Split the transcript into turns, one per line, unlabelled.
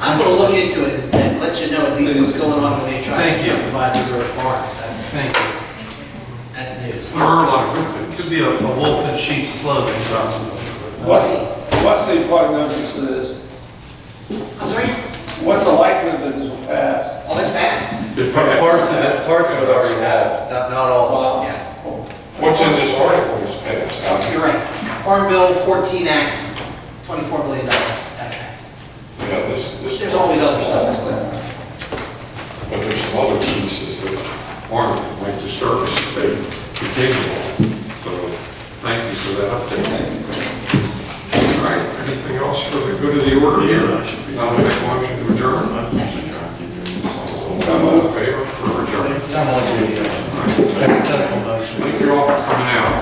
I'm gonna look into it and let you know at least what's going on when they try to
Thank you.
subdivide these other farms. That's,
Thank you.
that's news.
There are a lot of good things.
Could be a a wolf in sheep's clothing, Johnson.
What's, what's the prognosis of this?
I'm sorry,
What's the likelihood that this will pass?
all that fast?
Good
Par-
path.
Parts of it, parts of it already have, not, not all.
Wow.
Yeah,
What's in this article is passed?
you're right. Farm Bill 14 acts, $24 million, that's passed.
You know, this, this.
There's always other stuff.
That's that.
But there's some other pieces that aren't, like the service, they continue on. So thank you for that update. All right, anything else for the good of the order here? Now we make a motion to adjourn. All in favor for adjourn?
Sounds like a hypothetical motion.
Thank you all for coming out.